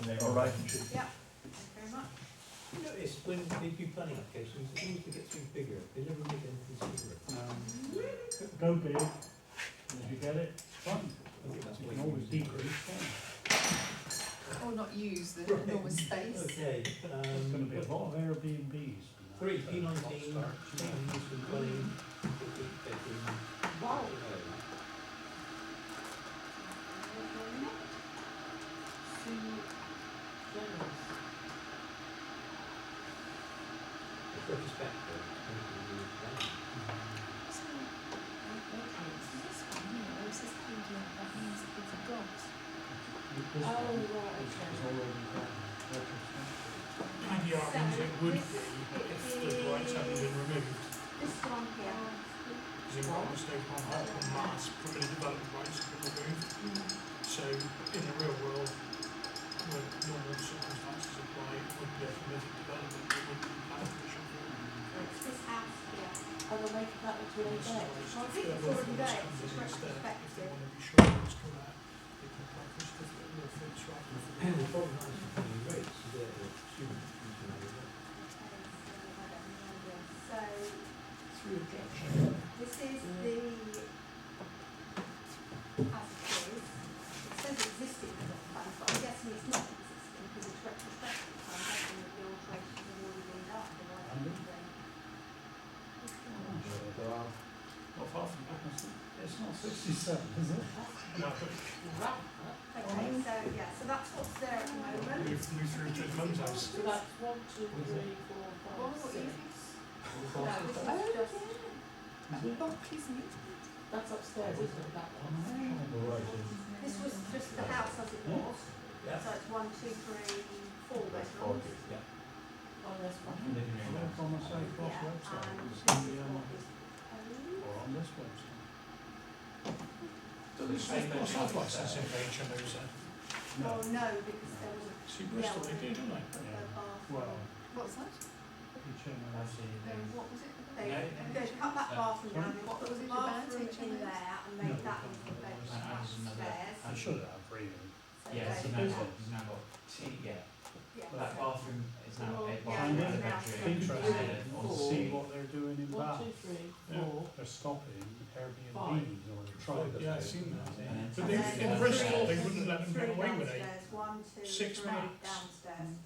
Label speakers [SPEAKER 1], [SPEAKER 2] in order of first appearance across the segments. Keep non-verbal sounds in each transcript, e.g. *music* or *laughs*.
[SPEAKER 1] relationship.
[SPEAKER 2] Yeah, thank you very much.
[SPEAKER 3] You know, it's when they do planning applications, it seems to get things bigger, they never make anything smaller.
[SPEAKER 2] Mm.
[SPEAKER 1] Go big, and Um, if you get it, fine,
[SPEAKER 3] I think that's
[SPEAKER 1] you
[SPEAKER 3] why
[SPEAKER 1] can always
[SPEAKER 3] you-
[SPEAKER 1] decrease, fine.
[SPEAKER 2] Or not use the
[SPEAKER 3] Right.
[SPEAKER 2] enormous space.
[SPEAKER 3] Okay,
[SPEAKER 1] It's gonna be a
[SPEAKER 3] um,
[SPEAKER 1] lot of Airbnbs. and that.
[SPEAKER 3] three, P nineteen, town use and planning, fifteen bedroom.
[SPEAKER 2] Wow.
[SPEAKER 3] uh,
[SPEAKER 2] Sue Jones.
[SPEAKER 3] Retrospect. uh,
[SPEAKER 4] So, okay, so this one here, or is this called a, that means it's a dot?
[SPEAKER 1] This
[SPEAKER 4] Oh,
[SPEAKER 1] one is-
[SPEAKER 4] right,
[SPEAKER 1] is
[SPEAKER 4] okay.
[SPEAKER 1] already got retrospective.
[SPEAKER 5] And the argument it would be if the lights hadn't been removed,
[SPEAKER 4] This one here.
[SPEAKER 5] because if I'm mistaken, on half on Mars, probably development rights have been removed. So in the real world, when normal circumstances apply, it would be a permitted development, it would be planning commission.
[SPEAKER 4] It's this house here. Oh, they're making that into
[SPEAKER 5] So
[SPEAKER 4] a bed.
[SPEAKER 5] it's-
[SPEAKER 2] I think it's
[SPEAKER 5] if
[SPEAKER 2] already there,
[SPEAKER 5] comes
[SPEAKER 2] it's
[SPEAKER 5] in
[SPEAKER 2] just
[SPEAKER 5] instead, If they
[SPEAKER 2] retrospective.
[SPEAKER 5] want to be sure what's come out, they can apply for a certificate of offence rather than for
[SPEAKER 3] And
[SPEAKER 5] the-
[SPEAKER 3] the problem is the planning rates, so they're the student using all of that.
[SPEAKER 2] So
[SPEAKER 5] Through objection.
[SPEAKER 2] this is the as it is. It says existing plot plan, but I'm guessing it's not existing because it's retrospective. So I'm guessing that the alterations have already been done. otherwise it would be-
[SPEAKER 1] There are,
[SPEAKER 5] Not far from that.
[SPEAKER 1] it's not sixty-seven, is it?
[SPEAKER 2] Okay, so yeah, so that's what's there at the moment.
[SPEAKER 5] Move, move through to mum's house.
[SPEAKER 4] one, two,
[SPEAKER 3] three,
[SPEAKER 4] four,
[SPEAKER 2] What was it? No, this is
[SPEAKER 4] Oh,
[SPEAKER 2] just.
[SPEAKER 1] Is it?
[SPEAKER 2] Buckley's meeting.
[SPEAKER 4] That's upstairs, isn't it, that
[SPEAKER 3] All right, then.
[SPEAKER 2] This was just the house as it was, so it's one, two, three, four bedrooms.
[SPEAKER 3] Yeah.
[SPEAKER 4] Oh, this
[SPEAKER 3] And then you know,
[SPEAKER 1] Look on the Safe Cross
[SPEAKER 2] Yeah,
[SPEAKER 1] website,
[SPEAKER 2] and
[SPEAKER 1] it's
[SPEAKER 2] this
[SPEAKER 1] gonna
[SPEAKER 2] is
[SPEAKER 1] be on,
[SPEAKER 2] what is owned.
[SPEAKER 1] or on this website.
[SPEAKER 5] Does it say what side license in HMOs then?
[SPEAKER 2] Oh, no, because there was
[SPEAKER 5] See, Bristol, they do, don't they?
[SPEAKER 2] a bath.
[SPEAKER 1] Well,
[SPEAKER 2] What was that?
[SPEAKER 1] each I
[SPEAKER 4] Um, what was it?
[SPEAKER 2] They, they cut that bathroom down, they put
[SPEAKER 4] Was
[SPEAKER 2] the
[SPEAKER 4] it
[SPEAKER 2] bathroom
[SPEAKER 4] advanced
[SPEAKER 2] in
[SPEAKER 4] HMOs?
[SPEAKER 2] there and made that into a bedroom
[SPEAKER 6] And there's another-
[SPEAKER 2] upstairs.
[SPEAKER 1] I should have, really.
[SPEAKER 2] So
[SPEAKER 6] Yeah, so
[SPEAKER 2] they-
[SPEAKER 6] now it's got, it's now got two, yeah,
[SPEAKER 2] Yeah.
[SPEAKER 6] that bathroom is now a
[SPEAKER 2] Yeah,
[SPEAKER 6] bathroom and a
[SPEAKER 2] now
[SPEAKER 6] bedroom.
[SPEAKER 2] it's
[SPEAKER 1] Interested
[SPEAKER 2] Yeah.
[SPEAKER 6] And
[SPEAKER 1] to see what they're doing in Bath.
[SPEAKER 5] Yeah.
[SPEAKER 1] They're stopping Airbnb's or trying to.
[SPEAKER 5] Yeah, I've seen that.
[SPEAKER 6] And
[SPEAKER 5] But
[SPEAKER 6] then
[SPEAKER 5] they,
[SPEAKER 6] it's
[SPEAKER 5] in
[SPEAKER 6] another
[SPEAKER 5] Bristol, they
[SPEAKER 6] shed
[SPEAKER 5] wouldn't let them get
[SPEAKER 2] Three
[SPEAKER 5] away with it.
[SPEAKER 2] downstairs, one, two,
[SPEAKER 5] Six
[SPEAKER 2] three
[SPEAKER 5] minutes.
[SPEAKER 2] downstairs.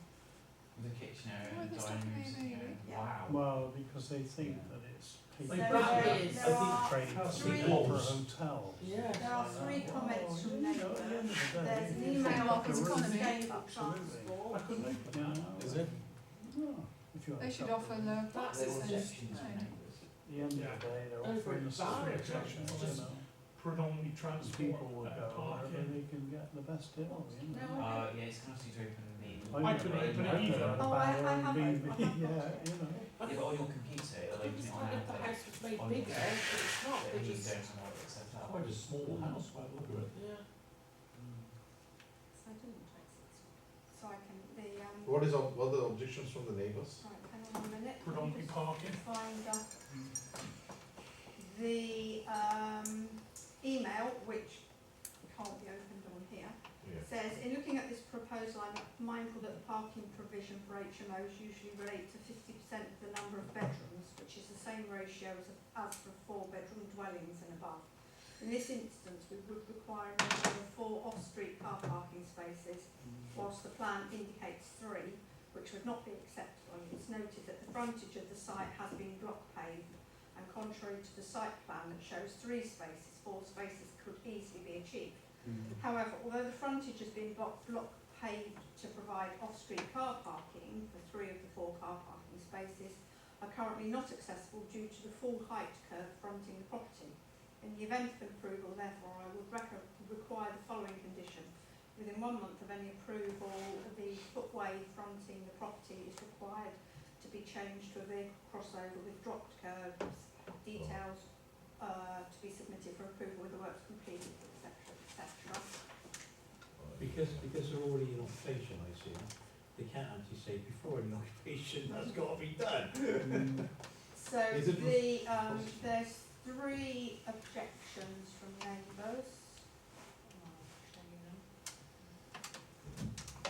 [SPEAKER 6] With a kitchen area
[SPEAKER 4] Oh,
[SPEAKER 6] and
[SPEAKER 4] there's
[SPEAKER 6] dining rooms,
[SPEAKER 4] definitely a
[SPEAKER 6] you know,
[SPEAKER 2] baby. Yeah.
[SPEAKER 6] wow.
[SPEAKER 1] Well, because they think that it's.
[SPEAKER 2] So
[SPEAKER 1] people
[SPEAKER 2] there,
[SPEAKER 3] Like
[SPEAKER 2] there
[SPEAKER 3] that
[SPEAKER 2] are,
[SPEAKER 3] is- I think
[SPEAKER 2] there
[SPEAKER 1] Trading for
[SPEAKER 3] three
[SPEAKER 1] hotel.
[SPEAKER 2] are three comments from neighbours. There's an email
[SPEAKER 4] off
[SPEAKER 2] of
[SPEAKER 4] his
[SPEAKER 2] his
[SPEAKER 4] economy.
[SPEAKER 2] sustainable
[SPEAKER 1] Absolutely.
[SPEAKER 2] transport.
[SPEAKER 1] I couldn't open it. now.
[SPEAKER 3] Is it?
[SPEAKER 1] No, if you had a
[SPEAKER 4] They should
[SPEAKER 1] couple.
[SPEAKER 4] offer the
[SPEAKER 6] That's all
[SPEAKER 4] boxes.
[SPEAKER 6] sections of neighbours.
[SPEAKER 1] At the end of the
[SPEAKER 5] Yeah.
[SPEAKER 1] day, they're
[SPEAKER 5] Over
[SPEAKER 1] offering
[SPEAKER 5] at
[SPEAKER 1] the
[SPEAKER 5] Barry,
[SPEAKER 1] same
[SPEAKER 5] actually,
[SPEAKER 1] you know.
[SPEAKER 5] Predominantly
[SPEAKER 1] And
[SPEAKER 5] transport,
[SPEAKER 1] people will go
[SPEAKER 5] uh,
[SPEAKER 1] wherever
[SPEAKER 5] parking.
[SPEAKER 1] they can get the best deal, you
[SPEAKER 2] No.
[SPEAKER 1] know.
[SPEAKER 6] Uh, yeah, it's nasty to open the.
[SPEAKER 5] I couldn't open it
[SPEAKER 6] Yeah,
[SPEAKER 5] either.
[SPEAKER 6] but
[SPEAKER 2] Oh, I- I have
[SPEAKER 1] Barry,
[SPEAKER 2] opened- I have
[SPEAKER 1] *laughs* Yeah, you
[SPEAKER 2] opened
[SPEAKER 1] know.
[SPEAKER 2] it.
[SPEAKER 6] on your computer, it'll open it on that, but
[SPEAKER 4] made
[SPEAKER 6] on your bigger,
[SPEAKER 4] it's not,
[SPEAKER 6] but you don't know what it's set up.
[SPEAKER 3] Quite a small house by the look of it.
[SPEAKER 5] Mm.
[SPEAKER 2] So I didn't trace it. So I can, the, um.
[SPEAKER 7] What is, ob- what are the objections from the neighbors?
[SPEAKER 2] Right, hang on a minute.
[SPEAKER 5] Predominantly parking.
[SPEAKER 2] Find uh,
[SPEAKER 5] Mm.
[SPEAKER 2] the um, email, which can't be opened on here,
[SPEAKER 7] Yeah.
[SPEAKER 2] says, in looking at this proposal, I'm mindful that the parking provision for HMOs usually relate to fifty percent of the number of bedrooms, which is the same ratio as, as for four-bedroom dwellings and above. In this instance, we would require a minimum of four off-street car parking spaces whilst the plan indicates three, which would not be acceptable, and it's noted that the frontage of the site has been block paved, and contrary to the site plan that shows three spaces, four spaces could easily be achieved. However, although the frontage has been block, block paved to provide off-street car parking for three of the four car parking spaces, are currently not accessible due to the full height curve fronting the property. In the event of approval, therefore, I would reco- require the following condition. Within one month of any approval, the footway fronting the property is required to be changed to a vehicle crossover with dropped curbs, details uh, to be submitted for approval with the works completed, etc., etc.
[SPEAKER 3] Because, because they're already in occupation, I see, they can't actually say before an occupation, that's gotta be done.
[SPEAKER 2] So
[SPEAKER 7] Is it-
[SPEAKER 2] the, um, there's three objections from neighbours.